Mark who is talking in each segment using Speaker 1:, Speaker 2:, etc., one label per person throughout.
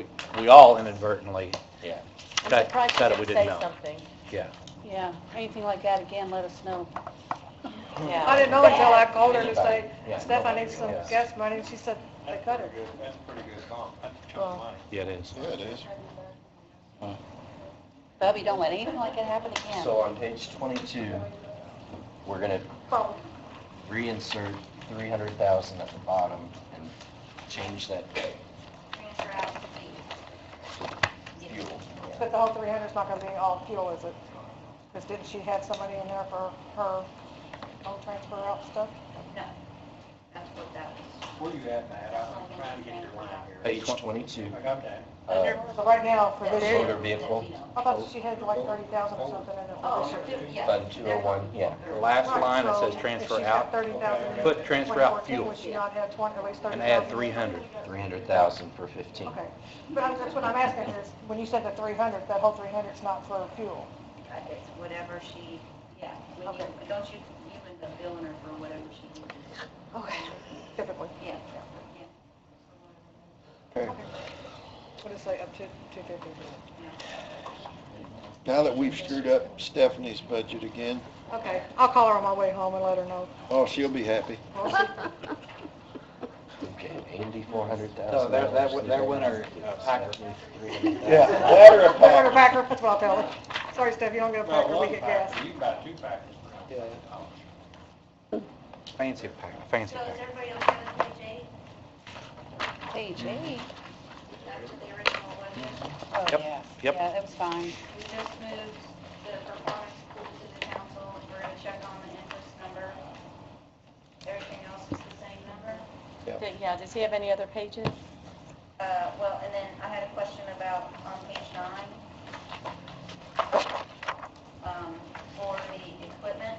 Speaker 1: we all inadvertently, yeah,
Speaker 2: I'm
Speaker 1: Got-
Speaker 2: surprised
Speaker 1: got it,
Speaker 2: you
Speaker 1: we
Speaker 2: didn't
Speaker 1: didn't
Speaker 2: say
Speaker 1: know.
Speaker 2: something.
Speaker 1: yeah.
Speaker 3: Yeah, anything like that, again, let us know.
Speaker 2: Yeah.
Speaker 4: I didn't know until I called her to say,
Speaker 1: Yeah.
Speaker 4: Steph, I need some
Speaker 1: Yeah.
Speaker 4: gas money, and she said, they cut her.
Speaker 5: That's a pretty good comp, that's a chunk
Speaker 2: Well-
Speaker 5: of money.
Speaker 1: Yeah, it is.
Speaker 6: Yeah, it is.
Speaker 3: Bubby, don't let anything like it happen again.
Speaker 7: So on page 22, we're going to reinsert 300,000 at the bottom and change that
Speaker 8: Transfer out the
Speaker 7: fuel.
Speaker 4: But the whole three hundred's not gonna be all fuel, is it? Because didn't she have somebody in there for her own transfer out stuff?
Speaker 8: No, that's what that was.
Speaker 5: Where you at, Matt? I'm I'm trying to get your line here.
Speaker 7: Page 22,
Speaker 5: I got that.
Speaker 7: uh,
Speaker 4: So right now, for this
Speaker 7: motor
Speaker 4: year,
Speaker 7: vehicle,
Speaker 4: I thought she had like thirty thousand or something in it.
Speaker 8: Oh,
Speaker 4: for this year.
Speaker 8: sure, yeah.
Speaker 7: Fund 201, yeah.
Speaker 1: The last line, it says transfer out,
Speaker 4: If she's got $30,000 in
Speaker 1: put transfer out
Speaker 4: 2014,
Speaker 1: fuel,
Speaker 4: Would she not have twenty, at least thirty
Speaker 1: and
Speaker 4: thousand?
Speaker 1: add 300.
Speaker 7: 300,000 for 15.
Speaker 4: Okay, but I'm- that's what I'm asking is, when you said the three hundred, that whole three hundred's not for fuel?
Speaker 8: Uh, It's whatever she, yeah, when you,
Speaker 4: Okay.
Speaker 8: don't you, you end up billing her for whatever she uses.
Speaker 4: Okay. Typically.
Speaker 8: Yeah,
Speaker 4: What is it say, up to two fifty?
Speaker 6: Now that we've screwed up Stephanie's budget again,
Speaker 4: Okay, I'll call her on my way home and let her know.
Speaker 6: oh, she'll be happy.
Speaker 4: Well, she-
Speaker 7: Okay, 80, 400,000.
Speaker 1: No, that, that, wa- that went our uh, packer.
Speaker 6: Yeah, let her
Speaker 4: I order
Speaker 6: a
Speaker 4: a
Speaker 6: pack.
Speaker 4: packer, that's what I'll tell her. Sorry, Steph, you don't get a
Speaker 5: About
Speaker 4: packer, we
Speaker 5: one
Speaker 4: get gas.
Speaker 5: pack, you can buy two packets for Uh, a
Speaker 1: Yeah.
Speaker 5: hundred dollars.
Speaker 1: Fancy packer, fancy
Speaker 8: So is
Speaker 1: packer.
Speaker 8: everybody else on page eight,
Speaker 3: Page eight.
Speaker 8: back to the original one?
Speaker 3: Oh,
Speaker 1: Yep,
Speaker 3: yeah.
Speaker 1: yep.
Speaker 3: Yeah, it was fine.
Speaker 8: We just moved the performance pool to the council, we're gonna check on the interest number. Everything else is the same number?
Speaker 3: Yeah, does he have any other pages?
Speaker 8: Uh, well, and then I had a question about on page nine, um, for the equipment.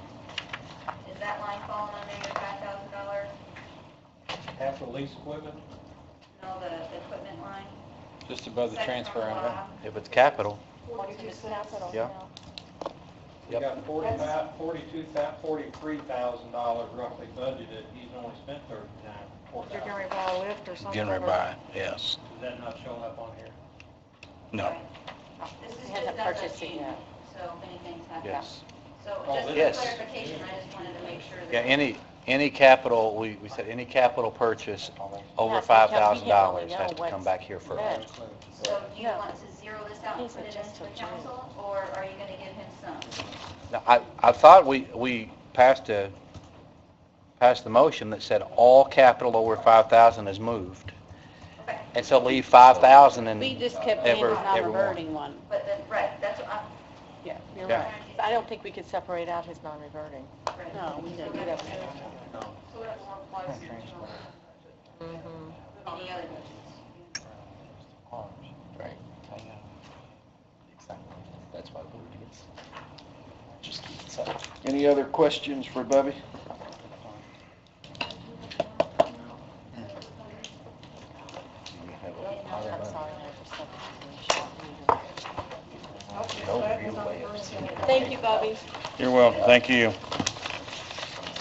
Speaker 8: Is that line falling under your five thousand dollar,
Speaker 5: Half the lease equipment?
Speaker 8: no, the the equipment line?
Speaker 1: Just
Speaker 5: Oh,
Speaker 1: above
Speaker 8: the transfer, huh?
Speaker 1: If it's capital,
Speaker 4: Forty-two cents.
Speaker 1: Yeah.
Speaker 5: You
Speaker 1: Yep.
Speaker 5: got forty-five, forty-two, forty-three thousand dollars roughly budgeted, he's only spent thirty-nine, four
Speaker 4: You're
Speaker 5: thousand.
Speaker 4: gonna buy a lift or something?
Speaker 1: generated
Speaker 4: or-
Speaker 1: by, yes,
Speaker 5: Is that not showing up on here?
Speaker 1: no,
Speaker 8: This is
Speaker 3: He
Speaker 8: just
Speaker 3: hasn't
Speaker 8: as a
Speaker 3: purchased it
Speaker 8: sheet,
Speaker 3: yet.
Speaker 8: so if anything's happened.
Speaker 1: yes.
Speaker 8: So
Speaker 5: Oh,
Speaker 8: just for
Speaker 1: this-
Speaker 8: clarification, I just wanted to make sure that.
Speaker 1: Yeah, any, any capital, we, we said any capital purchase over
Speaker 3: Has to come-
Speaker 1: $5,000
Speaker 3: we
Speaker 1: has
Speaker 3: don't
Speaker 1: to come
Speaker 3: know
Speaker 1: back here
Speaker 3: what's
Speaker 1: first.
Speaker 3: next.
Speaker 8: So do you
Speaker 3: No.
Speaker 8: want to zero this out and
Speaker 3: These
Speaker 8: put
Speaker 3: are
Speaker 8: it
Speaker 3: just
Speaker 8: into the
Speaker 3: a giant-
Speaker 8: council, or are you gonna give him some?
Speaker 1: Now, I, I thought we, we passed a, passed the motion that said all capital over 5,000 is moved.
Speaker 8: Okay.
Speaker 1: And so leave 5,000 and,
Speaker 3: We just kept
Speaker 1: Ever-
Speaker 3: being the
Speaker 1: everyone.
Speaker 3: non-reverting one.
Speaker 8: But then, right, that's what I'm.
Speaker 3: Yeah, you're
Speaker 1: Yeah.
Speaker 3: right.
Speaker 8: trying
Speaker 4: I don't think we could separate out his non-reverting.
Speaker 8: to- right.
Speaker 3: No, we didn't do that.
Speaker 8: So that's one plus any other budgets.
Speaker 7: Right. Exactly. That's why we were against. Just keep it separate.
Speaker 6: Any other questions for Bubby?
Speaker 7: You have a pile of money. No real way of seeing it.
Speaker 3: Thank you, Bubby.
Speaker 9: You're welcome, thank you.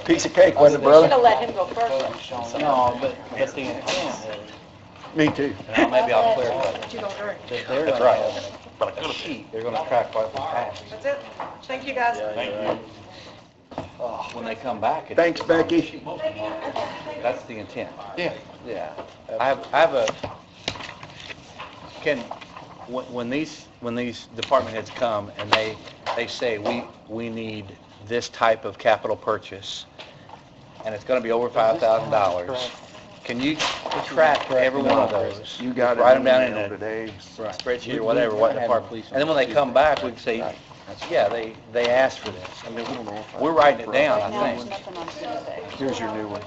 Speaker 7: Piece of cake, wasn't it,
Speaker 3: Should have
Speaker 7: brother?
Speaker 3: let him go first.
Speaker 1: no, but at the end,
Speaker 9: Me too.
Speaker 1: now, maybe I'll clarify.
Speaker 4: But you don't drink.
Speaker 1: that They're
Speaker 7: That's
Speaker 1: gonna
Speaker 7: right.
Speaker 1: have a sheet, they're gonna track what we passed.
Speaker 4: That's it. Thank you, guys.
Speaker 1: Oh, When they come back. it's-
Speaker 9: Thanks, Becky.
Speaker 1: That's the intent.
Speaker 9: Yeah.
Speaker 1: Yeah. I have, I have a, Ken, when, when these, when these department heads come and they, they say, we, we need this type of capital purchase, and it's gonna be over five thousand dollars, can you track every one of those?
Speaker 9: You got it.
Speaker 1: Write them down in
Speaker 9: email
Speaker 1: a
Speaker 9: today.
Speaker 1: spreadsheet or whatever, what department, and then when they come back, we can say, yeah, they, they asked for this. I mean, we're writing it down,
Speaker 3: Right now,
Speaker 1: I
Speaker 3: there's
Speaker 1: think,
Speaker 3: nothing on Tuesday.
Speaker 9: Here's your new one.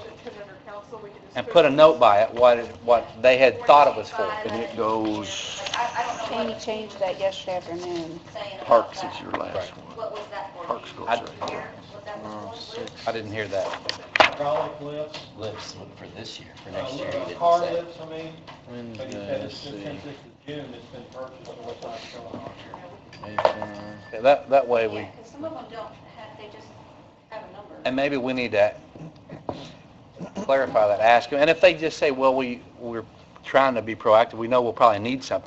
Speaker 1: and put a note by it, what, it- what they had thought it was for.
Speaker 9: And it goes,
Speaker 8: uh, Like, I, I don't know
Speaker 3: Jamie
Speaker 8: what
Speaker 3: changed that yesterday afternoon.
Speaker 8: it's saying about
Speaker 9: Parks
Speaker 8: that.
Speaker 9: is your last one.
Speaker 8: What was that for?
Speaker 9: Parks goes
Speaker 1: I-
Speaker 9: right
Speaker 8: Here, Was that the
Speaker 9: Oh,
Speaker 8: school?
Speaker 9: six.
Speaker 1: I didn't hear that.
Speaker 5: Hydraulic lifts,
Speaker 7: Lips look for this year, for
Speaker 5: uh,
Speaker 7: next year, you
Speaker 5: uh,
Speaker 7: didn't
Speaker 5: car
Speaker 7: say.
Speaker 5: lifts, I mean,
Speaker 9: When's,
Speaker 5: but he said
Speaker 9: uh,
Speaker 5: it's just since this is June, it's been purchased, so what's not showing on here?
Speaker 1: Yeah, That, that way we,
Speaker 8: Yeah, because some of them don't have, they just have a number.
Speaker 1: and maybe we need to clarify that, ask them. And if they just say, well, we, we're trying to be proactive, we know we'll probably need something.